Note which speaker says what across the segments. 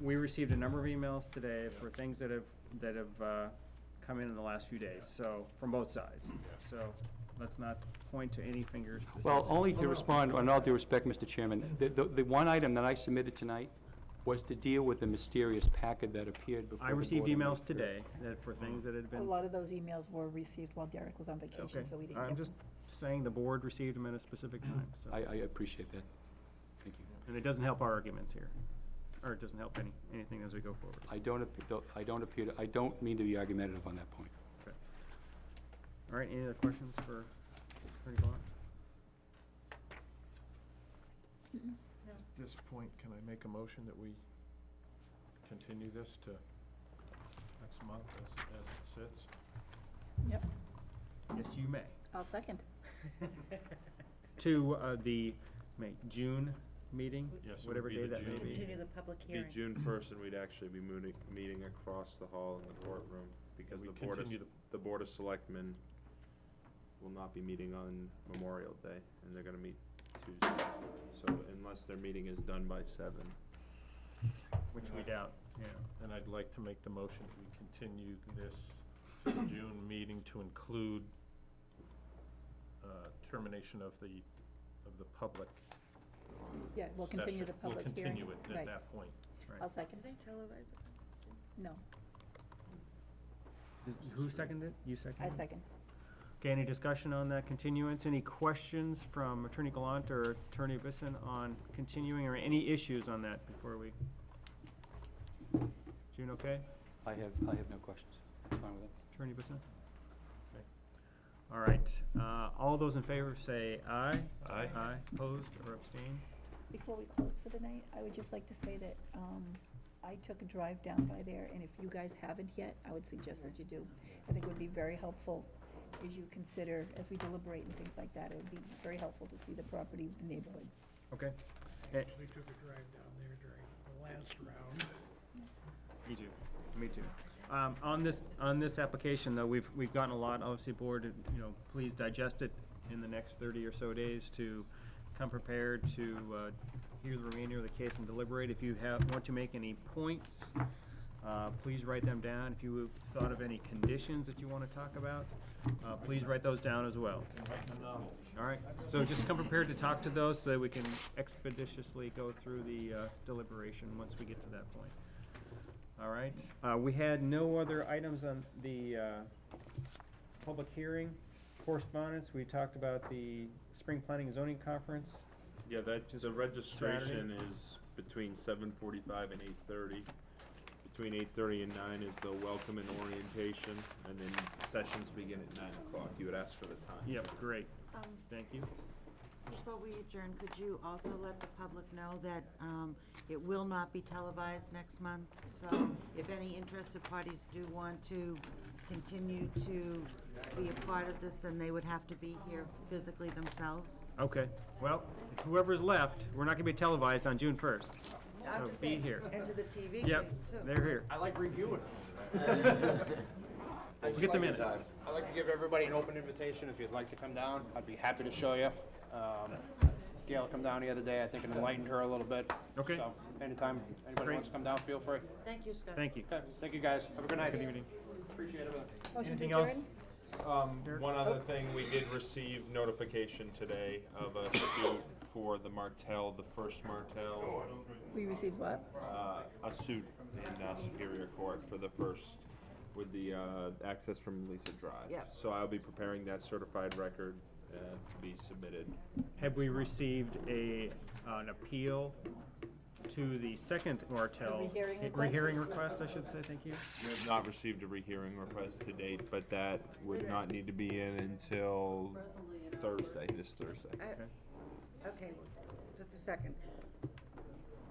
Speaker 1: we received a number of emails today for things that have, that have, uh, come in in the last few days, so, from both sides. So, let's not point to any fingers. This
Speaker 2: Well,
Speaker 1: is-
Speaker 2: only to respond, in all due respect, Mr. Chairman, the, the, the one item that I submitted tonight was to deal with the mysterious packet that appeared before
Speaker 1: I
Speaker 2: the
Speaker 1: received
Speaker 2: board on May
Speaker 1: emails
Speaker 2: 3rd.
Speaker 1: today that for things that had
Speaker 3: A
Speaker 1: been.
Speaker 3: lot of those emails were received while Derek was on
Speaker 1: Okay,
Speaker 3: vacation, so we didn't
Speaker 1: I'm
Speaker 3: get
Speaker 1: just
Speaker 3: them.
Speaker 1: saying the board received them at a specific time,
Speaker 2: I,
Speaker 1: so,
Speaker 2: I appreciate that. Thank you.
Speaker 1: and it doesn't help our arguments here, or it doesn't help any, anything as we go forward.
Speaker 2: I don't, ap- though- I don't appear, to- I don't mean to be argumentative on that point.
Speaker 1: Okay. All right, any other questions for Attorney Blunt?
Speaker 4: At this point, can I make a motion that we continue this to next month as, as it sits?
Speaker 3: Yep,
Speaker 1: Yes, you may.
Speaker 3: I'll second.
Speaker 1: To, uh, the, May, June meeting?
Speaker 4: Yes, it would
Speaker 1: Whatever
Speaker 4: be
Speaker 1: day
Speaker 4: the
Speaker 1: that may
Speaker 4: June.
Speaker 1: be.
Speaker 5: Continue the public
Speaker 6: be
Speaker 5: hearing.
Speaker 6: June first, and we'd actually be mooning, meeting across the hall in the courtroom, because
Speaker 4: we
Speaker 6: the Board of,
Speaker 4: continue
Speaker 6: S- the Board of Selectmen will not be meeting on Memorial Day, and they're gonna meet Tuesday. So unless their meeting is done by seven.
Speaker 1: Which we doubt, yeah.
Speaker 4: And I'd like to make the motion that we continue this to the June meeting to include uh, termination of the, of the public.
Speaker 3: Yeah, we'll continue the
Speaker 4: session.
Speaker 3: public hearing.
Speaker 4: We'll continue it at
Speaker 3: Right.
Speaker 4: that point.
Speaker 3: I'll
Speaker 5: Can
Speaker 3: second.
Speaker 5: they televise it?
Speaker 3: No,
Speaker 1: Does- Who seconded? it? You seconded?
Speaker 3: I
Speaker 1: it?
Speaker 3: second.
Speaker 1: Okay, any discussion on that continuance? Any questions from Attorney Gallant or Attorney Bisson on continuing or any issues on that before we? June, okay?
Speaker 2: I have, I have no questions. That's fine with that.
Speaker 1: Attorney Bisson? Okay. All right, uh, all those in favor say aye.
Speaker 4: Aye.
Speaker 1: Aye, opposed or abstained?
Speaker 3: Before we close for the night, I would just like to say that, um, I took a drive down by there, and if you guys haven't yet, I would suggest that you do. I think it would be very helpful as you consider, as we deliberate and things like that, it would be very helpful to see the property, the neighborhood.
Speaker 1: Okay.
Speaker 7: I
Speaker 1: Eh,
Speaker 7: actually took a drive down there during the last round.
Speaker 1: Me too, me too. Um, on this, on this application, though, we've, we've gotten a lot, obviously, board, you know, please digest it in the next thirty or so days to come prepared to, uh, hear the remainder of the case and deliberate. If you have, want to make any points, uh, please write them down. If you have thought of any conditions that you wanna talk about, uh, please write those down as well. All right, so just come prepared to talk to those so that we can expeditiously go through the, uh, deliberation once we get to that point. All right, uh, we had no other items on the, uh, public hearing. Correspondence, we talked about the spring planning and zoning conference.
Speaker 6: Yeah, that,
Speaker 1: Just
Speaker 6: the registration is between seven forty-five and eight thirty. Between eight thirty and nine is the welcome and orientation, and then sessions begin at nine o'clock. You would ask for the time.
Speaker 1: Yep, great,
Speaker 5: Um,
Speaker 1: thank you.
Speaker 5: Before we adjourn, could you also let the public know that um, it will not be televised next month? So if any interested parties do want to continue to be a part of this, then they would have to be here physically themselves?
Speaker 1: Okay, well, whoever's left, we're not gonna be televised on June first. So
Speaker 5: I'm just
Speaker 1: Oh, be
Speaker 5: saying,
Speaker 1: here.
Speaker 5: And to the TV
Speaker 1: Yep,
Speaker 5: thing, too.
Speaker 1: they're here.
Speaker 8: I like reviewing. I just
Speaker 1: Get the
Speaker 8: like your
Speaker 1: minutes.
Speaker 8: time. I'd like to give everybody an open invitation. If you'd like to come down, I'd be happy to show you. Um, Gail come down the other day. I think it enlightened her a little bit.
Speaker 1: Okay.
Speaker 8: So anytime anybody
Speaker 1: Great.
Speaker 8: wants to come down, feel free.
Speaker 5: Thank you, Scott.
Speaker 1: Thank you.
Speaker 8: Okay, thank you guys. Have a good night.
Speaker 1: Good evening.
Speaker 8: Appreciate everything.
Speaker 3: Motion to
Speaker 1: Anything else?
Speaker 3: adjourn?
Speaker 6: Um, one other
Speaker 3: Oh.
Speaker 6: thing, we did receive notification today of a suit for the Martell, the first Martell,
Speaker 3: We received what?
Speaker 6: uh, a suit in uh, Superior Court for the first, with the, uh, access from Lisa Drive.
Speaker 5: Yep.
Speaker 6: So I'll be preparing that certified record, uh, to be submitted.
Speaker 1: Have we received a, an appeal to the second Martell?
Speaker 3: rehearing
Speaker 1: eh,
Speaker 3: request?
Speaker 1: rehearing request, I should say, thank you.
Speaker 6: We have not received a rehearing request to date, but that would not need to be in until Thursday, this Thursday.
Speaker 5: I- Okay, just a second.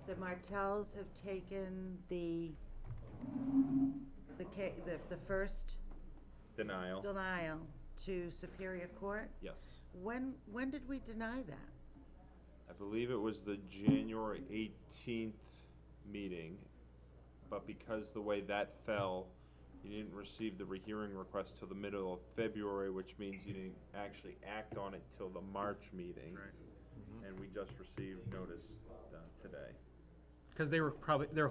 Speaker 5: The Martells have taken the, the ca, the, the first
Speaker 6: Denial,
Speaker 5: denial to Superior Court.
Speaker 6: yes.
Speaker 5: When, when did we deny that?
Speaker 6: I believe it was the January eighteenth meeting, but because the way that fell, you didn't receive the rehearing request till the middle of February, which means you didn't actually act on it till the March meeting.
Speaker 1: Right.
Speaker 6: And we just received notice uh, today.
Speaker 1: Because they were probably, they're